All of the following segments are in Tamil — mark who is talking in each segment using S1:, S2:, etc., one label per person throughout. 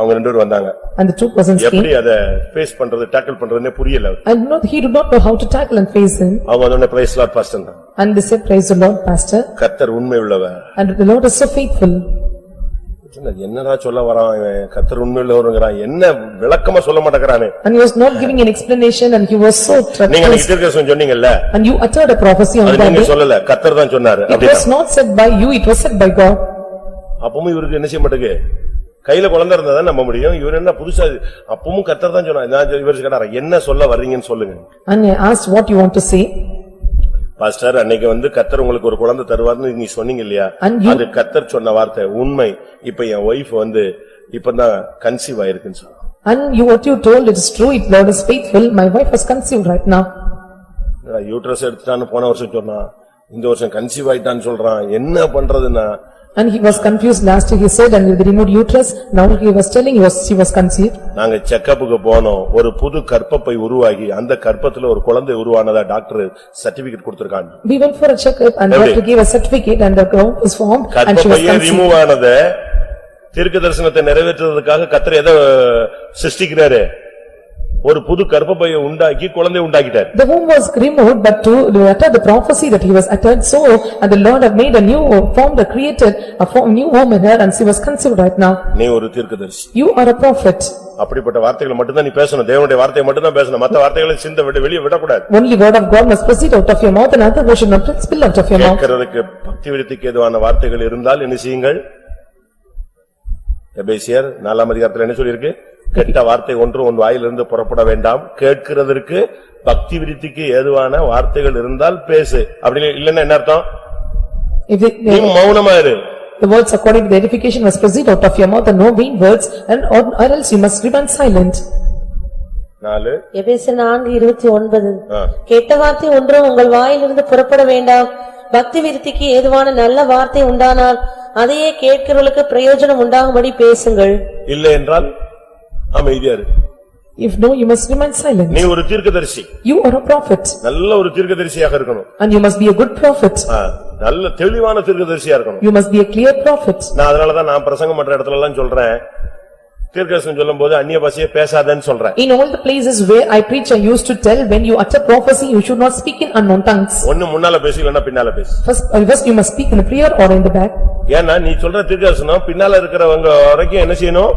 S1: அவங்க ரெண்டு பேரும் வந்தாங்க
S2: and the two persons
S1: எப்படி
S2: came
S1: அத ஃபேஸ் பண்றது டேக்கிள் பண்றதுன்னே புரியல அவருக்கு.
S2: and not, he did not know how to tackle and face him
S1: அவங்க அதோட பிரைஸ் லாட் பாஸ்டன் தான்
S2: and they said praise the Lord pastor
S1: கத்தர் உண்மை உள்ளவ
S2: and the Lord is so faithful
S1: என்னடா சொல்ல வரான் இவன்? கத்தர் உண்மை உள்ளவருங்கிறான் என்ன விளக்கமா சொல்ல மாட்டேங்கிறானே
S2: and he was not giving an explanation and he was so
S1: நீங்க
S2: treacherous
S1: திருக்கசம் சொன்னீங்கல்ல
S2: and you uttered a prophecy on
S1: அது
S2: that
S1: நீங்க
S2: day
S1: சொல்லல கத்தர் தான் சொன்னாரு
S2: it was
S1: அப்படின்னா
S2: not said by you it was said by God
S1: அப்பவும் இவருக்கு என்ன செய்ய மாட்டேங்கு கையில குழந்தை இருந்தா தான் நம்ப முடியும் இவர் என்ன புதுசா இது? அப்பவும் கத்தர் தான் சொன்னாரு நான் இவர் கேட்டாரா என்ன சொல்ல வர்றீங்கன்னு சொல்லுங்க
S2: and I asked what you want to say
S1: pastor அன்னைக்கு வந்து கத்தர் உங்களுக்கு ஒரு குழந்தை தருவார்னு நீ சொன்னீங்க இல்லையா
S2: And you-
S1: அது கத்தர் சொன்ன வார்த்தை உண்மை இப்ப என் ஒய்ஃப் வந்து இப்பதான் கன்சீவ் ஆயிருக்குன்னு சொன்னா
S2: and you what you told it is true it Lord is faithful my wife was conceived right now
S1: uterus எடுத்துட்டான்னு போன வருஷம் சொன்னா இந்த வருஷம் கன்சீவ் ஆயிட்டான்னு சொல்றான் என்ன பண்றதுன்னா
S2: and he was confused last year he said and with the removed uterus now he was telling he was she was conceived
S1: நாங்க செக்கப்புக்கு போனோம் ஒரு புது கற்பப்பை உருவாகி அந்த கற்பத்துல ஒரு குழந்தை உருவானதா டாக்டர் சர்டிபிகேட் கொடுத்திருக்காங்க
S2: we went for a checkup and
S1: Every
S2: doctor gave a certificate and the womb is formed and she was
S1: கற்பப்பையே
S2: conceived
S1: ரிமூவ் ஆனத தீர்க்க தரிசனத்தை நிறைவேற்றுறதுக்காக கத்தர் எதை சிருஷ்டிக்கிறாரு ஒரு புது கற்பப்பையை உண்டாக்கி குழந்தை உண்டாக்கிட்டார்
S2: The womb was removed but to utter the prophecy that he was uttered so and the Lord have made a new form that created a form new womb in her and she was conceived right now.
S1: நீ ஒரு தீர்க்கதரிசி
S2: You are a prophet.
S1: அப்படிப்பட்ட வார்த்தைகளை மட்டும்தான் நீ பேசணும் தேவனுடைய வார்த்தையை மட்டும்தான் பேசணும் மத்த வார்த்தைகளை சிந்த விட்டு வெளியே விடக்கூடாது
S2: Only word of God must proceed out of your mouth and other word should not spill out of your mouth.
S1: கேட்கறதுக்கு பக்தி விருத்திக்கு எதுவான வார்த்தைகள் இருந்தால் என்ன செய்யுங்கள் எபேசியர் நாலாம் அதிகாரத்துல என்ன சொல்லிருக்கு கெட்ட வார்த்தை ஒன்று உன் வாயிலிருந்து புறப்பட வேண்டாம் கேட்கிறதற்கு பக்தி விருத்திக்கு ஏதுவான வார்த்தைகள் இருந்தால் பேசு அப்படி இல்லன்னா என்ன அர்த்தம்
S2: If the-
S1: நீ
S2: the-
S1: மௌனமா இரு
S2: the words according to the edification must proceed out of your mouth and no vain words and or or else you must remain silent.
S1: நாலு
S3: எபேசர் நான்கு இருபத்தி ஒன்பது
S1: ஆ.
S3: கெட்ட வார்த்தை ஒன்றும் உங்கள் வாயிலிருந்து புறப்பட வேண்டாம் பக்தி விருத்திக்கு ஏதுவான நல்ல வார்த்தை உண்டானால் அதையே கேட்கிறவர்களுக்கு பிரயோஜனம் உண்டாகும்படி பேசுங்கள்
S1: இல்லை என்றால் அமைதியா இரு
S2: If no, you must remain silent.
S1: நீ ஒரு தீர்க்கதரிசி
S2: You are a prophet
S1: நல்ல ஒரு தீர்க்கதரிசியாக இருக்கணும்
S2: and you must be a good prophet.
S1: ஆ, நல்ல தெளிவான தீர்க்கதரிசியா இருக்கணும்
S2: You must be a clear prophet.
S1: நான் அதனாலதான் நான் பிரசங்கம் பண்ற இடத்துல எல்லாம் சொல்றேன் தீர்க்கதரிசனம் சொல்லும்போது அந்நிய பாஷையே பேசாதேன்னு சொல்றேன்
S2: In all the places where I preach, I used to tell, when you utter prophecy, you should not speak in unknown tongues.
S1: ஒண்ணு முன்னால பேசு இல்லன்னா பின்னால பேசு
S2: First, uh, first you must speak in the prayer or in the back.
S1: ஏன்னா நீ சொல்ற தீர்க்கதரிசனம் பின்னால இருக்கிறவங்க வரைக்கும் என்ன செய்யணும்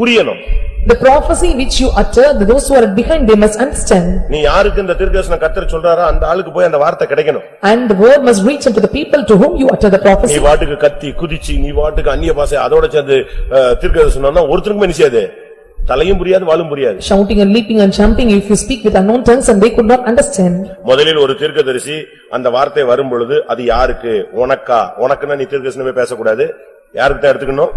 S1: புரியணும்
S2: The prophecy which you utter, those who are behind, they must understand.
S1: நீ யாருக்கு இந்த தீர்க்கதரிசனம் கத்தர் சொல்றாரோ அந்த ஆளுக்கு போய் அந்த வார்த்தை கிடைக்கணும்
S2: And the word must reach unto the people to whom you utter the
S1: நீ
S2: prophecy.
S1: வாட்டுக்கு கத்தி குதிச்சு நீ வாட்டுக்கு அந்நிய பாஷை அதோட சேர்ந்து அஹ், தீர்க்கதரிசனம்னா ஒருத்தருக்குமே என்ன செய்யாது தலையும் புரியாது வாலும் புரியாது
S2: Shouting and leaping and jumping, if you speak with unknown tongues and they could not understand.
S1: முதலில் ஒரு தீர்க்கதரிசி அந்த வார்த்தை வரும்பொழுது அது யாருக்கு உனக்கா உனக்குன்னா நீ தீர்க்கதரிசனமே பேசக்கூடாது யாருக்கிட்ட எடுத்துக்கணும்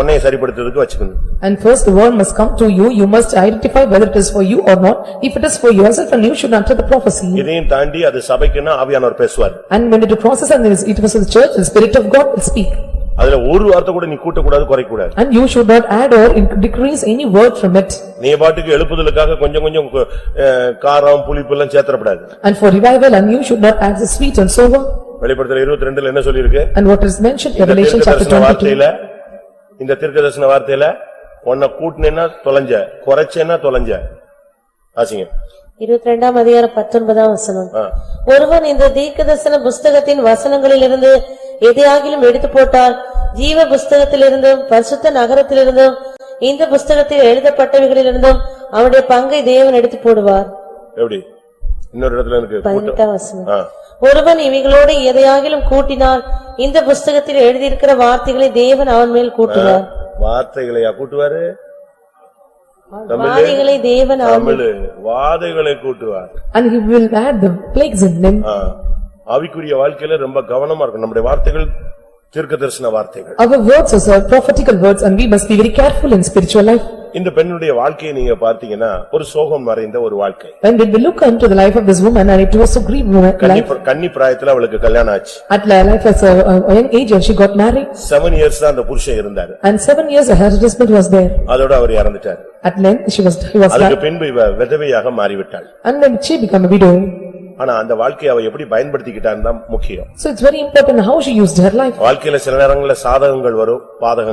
S1: உன்னைய சரிப்படுத்துறதுக்கு வச்சுக்கணும்
S2: And first the word must come to you, you must identify whether it is for you or not. If it is for yourself, then you should utter the prophecy.
S1: இதையும் தாண்டி அது சபைக்குன்னா ஆவியானவர் பேசுவார்
S2: And when it crosses and it is- it was in the church, the spirit of God will speak.
S1: அதுல ஒரு வார்த்தை கூட நீ கூட்டக்கூடாது குறைக்கூடாது
S2: And you should not add or inc- decrease any word from it.
S1: நீ பாட்டுக்கு எழுப்புதலுக்காக கொஞ்சம் கொஞ்சம் கு- அஹ், காரம் புளிப்பு எல்லாம் சேர்த்தப்படாது
S2: And for revival, and you should not add the sweet and sober.
S1: வெளிப்படுத்தல இருபத்தி ரெண்டுல என்ன சொல்லிருக்கு
S2: And what is mentioned in
S1: இந்த
S2: Revelation chapter
S1: தீர்க்கதரிசன
S2: twenty-two.
S1: வார்த்தையில இந்த தீர்க்கதரிசன வார்த்தையில உன்னை கூட்டினேன்னா தொலைஞ்ச குறைச்சேன்னா தொலைஞ்ச ஆசிங்க
S3: இருபத்தி ரெண்டாம் அதிகாரம் பத்தொன்பதாம் வசனம்
S1: ஆ.
S3: ஒருவன் இந்த தீர்க்கதரிசன புஸ்தகத்தின் வசனங்களிலிருந்து எதையாகிலும் எடுத்து போட்டால் ஜீவ புஸ்தகத்திலிருந்தும் பரிசுத்த நகரத்திலிருந்தும் இந்த புஸ்தகத்தில் எழுதப்பட்டவைகளிலிருந்தும் அவனுடைய பங்கை தேவன் எடுத்து போடுவார்
S1: எப்படி இன்னொரு இடத்துல இருக்கு கூட்டம்.
S3: பதினெட்டாம் வசனம்
S1: ஆ.
S3: ஒருவன் இவைகளோடு எதையாகிலும் கூட்டினால் இந்த புஸ்தகத்தில் எழுதியிருக்கிற வார்த்தைகளை தேவன் அவன் மேல் கூட்டுவார்
S1: வார்த்தைகளையா கூட்டுவாரு
S3: வாதைகளை தேவன் அவன்
S1: Tamil வாதைகளை கூட்டுவார்
S2: And he will add the plagues in them.
S1: ஆ. ஆவிக்குரிய வாழ்க்கையில ரொம்ப கவனமா இருக்கும் நம்முடைய வார்த்தைகள் தீர்க்கதரிசன வார்த்தைகள்
S2: Our words are prophetical words and we must be very careful in spiritual life.
S1: இந்த பெண்ணுடைய வாழ்க்கையை நீங்க பார்த்தீங்கன்னா ஒரு சோகம் மறைந்த ஒரு வாழ்க்கை
S2: And when we look unto the life of this woman and it was a grief woman
S1: கன்னி
S2: life.
S1: பிர- கன்னி பிராயத்துல அவளுக்கு கல்யாணம் ஆச்சு
S2: At li- life as a a young age and she got married.
S1: Seven years தான் அந்த புருஷன் இருந்தாரு
S2: And seven years her husband was there.
S1: அதோட அவர் இறந்துட்டார்
S2: At length, she was, he was
S1: அதுக்கு
S2: died.
S1: பின்பு இவ விதவையாக மாறிவிட்டாள்
S2: And then she became a widow.
S1: ஆனா அந்த வாழ்க்கையை அவ எப்படி பயன்படுத்திக்கிட்டான் தான் முக்கியம்
S2: So it's very important how she used her life.
S1: வாழ்க்கையில சில நேரங்கள்ல சாதகங்கள் வரும் பாதகங்கள்